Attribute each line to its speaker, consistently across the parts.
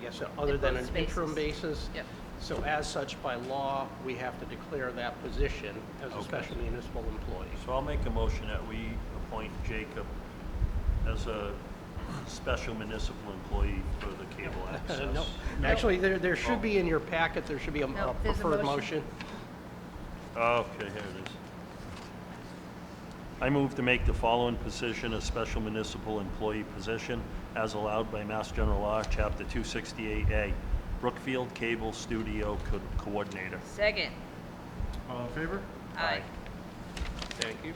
Speaker 1: guess, other than an
Speaker 2: both
Speaker 1: interim
Speaker 2: spaces.
Speaker 1: basis.
Speaker 2: Yep.
Speaker 1: So as such, by law, we have to declare that position as a
Speaker 3: Okay.
Speaker 1: special municipal employee.
Speaker 3: So I'll make a motion that we appoint Jacob as a special municipal employee for the cable
Speaker 1: Uh,
Speaker 3: access.
Speaker 1: No, actually, there, there should be in your packet, there should be a
Speaker 2: No,
Speaker 1: a
Speaker 2: there's a
Speaker 1: preferred
Speaker 2: motion.
Speaker 1: motion.
Speaker 3: Okay, here it is. I move to make the following position a special municipal employee position as allowed by Mass General Law, Chapter 268A, Brookfield Cable Studio Co- Coordinator.
Speaker 2: Second.
Speaker 4: All in favor?
Speaker 2: Aye.
Speaker 1: Thank you.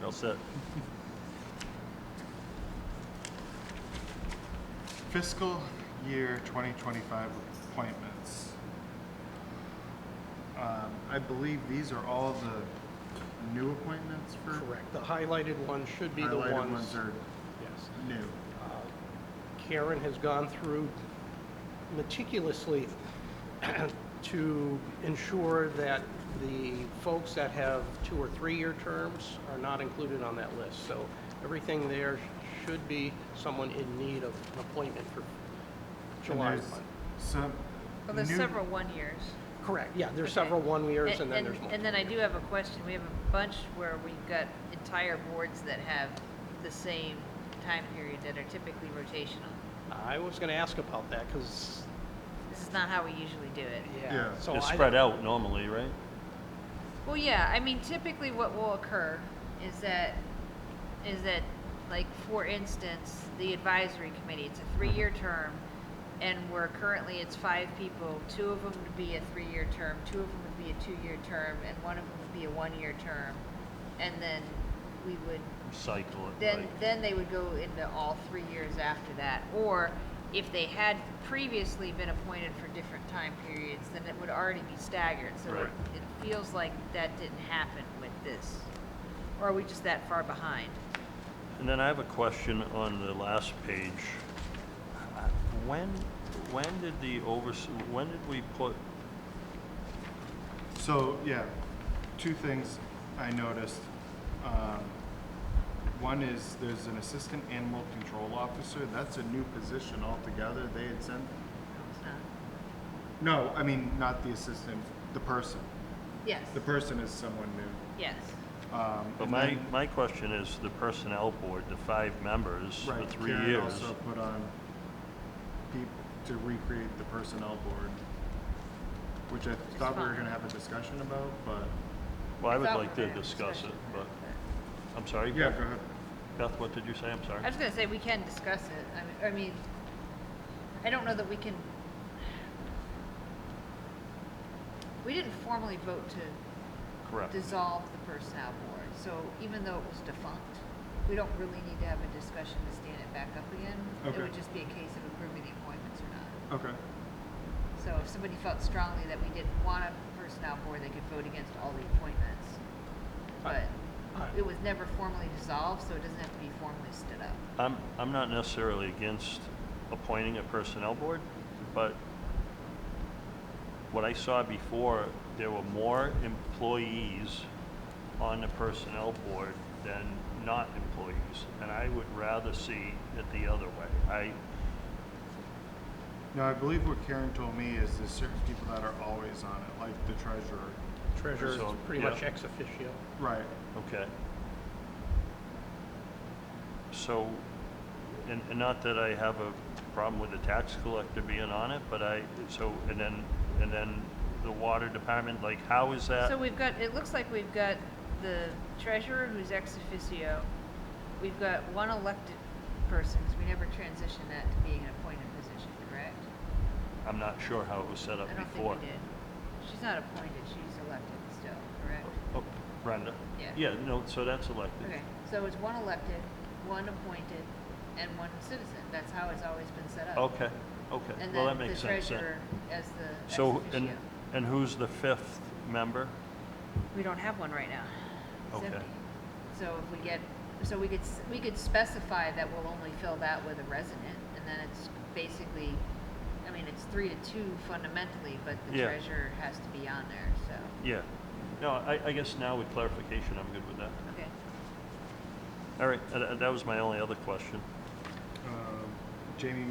Speaker 3: That's it.
Speaker 4: Fiscal year 2025 appointments. Um, I believe these are all the new appointments for.
Speaker 1: Correct. The highlighted ones should be the ones.
Speaker 4: Highlighted ones are
Speaker 1: Yes.
Speaker 4: new.
Speaker 1: Karen has gone through meticulously to ensure that the folks that have two or three-year terms are not included on that list. So everything there should be someone in need of an appointment for
Speaker 4: And
Speaker 1: July.
Speaker 4: there's some.
Speaker 2: Well, there's
Speaker 4: new-
Speaker 2: several one-years.
Speaker 1: Correct, yeah, there's
Speaker 2: Okay.
Speaker 1: several one-years and then there's
Speaker 2: And
Speaker 1: one.
Speaker 2: then I do have a question. We have a bunch where we've got entire boards that have the same time period that are typically rotational.
Speaker 1: I was going to ask about that because,
Speaker 2: This is not how we usually do it.
Speaker 1: yeah.
Speaker 4: Yeah.
Speaker 1: so
Speaker 3: It's
Speaker 1: I-
Speaker 3: spread out normally, right?
Speaker 2: Well, yeah, I mean, typically what will occur is that, is that, like, for instance, the advisory committee, it's a three-year term, and we're currently, it's five people, two of them would be a three-year term, two of them would be a two-year term, and one of them would be a one-year term, and then we would
Speaker 3: Cycle it,
Speaker 2: then,
Speaker 3: right?
Speaker 2: then they would go into all three years after that. Or if they had previously been appointed for different time periods, then it would already be staggered. So it
Speaker 3: Right.
Speaker 2: it feels like that didn't happen with this. Or are we just that far behind?
Speaker 3: And then I have a question on the last page. Uh, When, when did the overs, when did we put,
Speaker 4: So, yeah, two things I noticed. Um, One is there's an assistant animal control officer. That's a new position altogether. They had sent,
Speaker 2: No, it's not.
Speaker 4: no, I mean, not the assistant, the person.
Speaker 2: Yes,
Speaker 4: The person is someone new.
Speaker 2: yes.
Speaker 4: Um,
Speaker 3: but
Speaker 4: and
Speaker 3: my,
Speaker 4: then-
Speaker 3: my question is the personnel board, the five members for
Speaker 4: right,
Speaker 3: three
Speaker 4: Karen
Speaker 3: years.
Speaker 4: also put on people to recreate the personnel board, which I thought we were
Speaker 2: fine.
Speaker 4: gonna have a discussion about, but,
Speaker 3: Well, I would
Speaker 2: Thought we
Speaker 3: like
Speaker 2: were
Speaker 3: to
Speaker 2: gonna
Speaker 3: discuss
Speaker 2: discuss
Speaker 3: it,
Speaker 2: it,
Speaker 3: but, I'm sorry,
Speaker 4: yeah,
Speaker 3: Beth,
Speaker 4: go ahead.
Speaker 3: Beth, what did you say? I'm sorry.
Speaker 2: I was gonna say, we can discuss it. I mean, I mean, I don't know that we can. We didn't formally vote to
Speaker 3: Correct.
Speaker 2: dissolve the personnel board. So even though it was defunct, we don't really need to have a discussion to stand it back up again. It
Speaker 4: Okay.
Speaker 2: would just be a case of approving the appointments or not.
Speaker 4: Okay,
Speaker 2: So if somebody felt strongly that we didn't want a personnel board, they could vote against all the appointments. But
Speaker 1: Alright.
Speaker 2: it was never formally dissolved, so it doesn't have to be formally stood up.
Speaker 3: I'm, I'm not necessarily against appointing a personnel board, but what I saw before, there were more employees on the personnel board than not employees, and I would rather see it the other way. I,
Speaker 4: now I believe what Karen told me is there's certain people that are always on it, like the treasurer.
Speaker 1: Treasurer is
Speaker 3: So,
Speaker 1: pretty
Speaker 3: yeah.
Speaker 1: much ex officio.
Speaker 4: Right,
Speaker 3: Okay. So, and, and not that I have a problem with the tax collector being on it, but I, so, and then, and then the water department, like, how is that?
Speaker 2: So we've got, it looks like we've got the treasurer who's ex officio. We've got one elected person, because we never transitioned that to being an appointed position, correct?
Speaker 3: I'm not sure how it was set up
Speaker 2: I don't
Speaker 3: before.
Speaker 2: think we did. She's not appointed, she's elected still, correct?
Speaker 3: Oh, Brenda?
Speaker 2: Yeah.
Speaker 3: Yeah, no, so that's elected.
Speaker 2: Okay, so it's one elected, one appointed, and one citizen. That's how it's always been set up.
Speaker 3: Okay, okay,
Speaker 2: Oh. And
Speaker 3: well,
Speaker 2: then
Speaker 3: that makes
Speaker 2: the
Speaker 3: sense then.
Speaker 2: treasurer as the ex
Speaker 3: So, and,
Speaker 2: officio.
Speaker 3: and who's the fifth member?
Speaker 2: We don't have one right now. It's
Speaker 3: Okay.
Speaker 2: empty. So if we get, so we could, s- we could specify that we'll only fill that with a resident, and then it's basically, I mean, it's three to two fundamentally, but the
Speaker 3: Yeah.
Speaker 2: treasurer has to be on there, so,
Speaker 3: Yeah. No, I, I guess now with clarification, I'm good with that.
Speaker 2: okay.
Speaker 3: All right, uh, that was my only other question.
Speaker 4: um, Jamie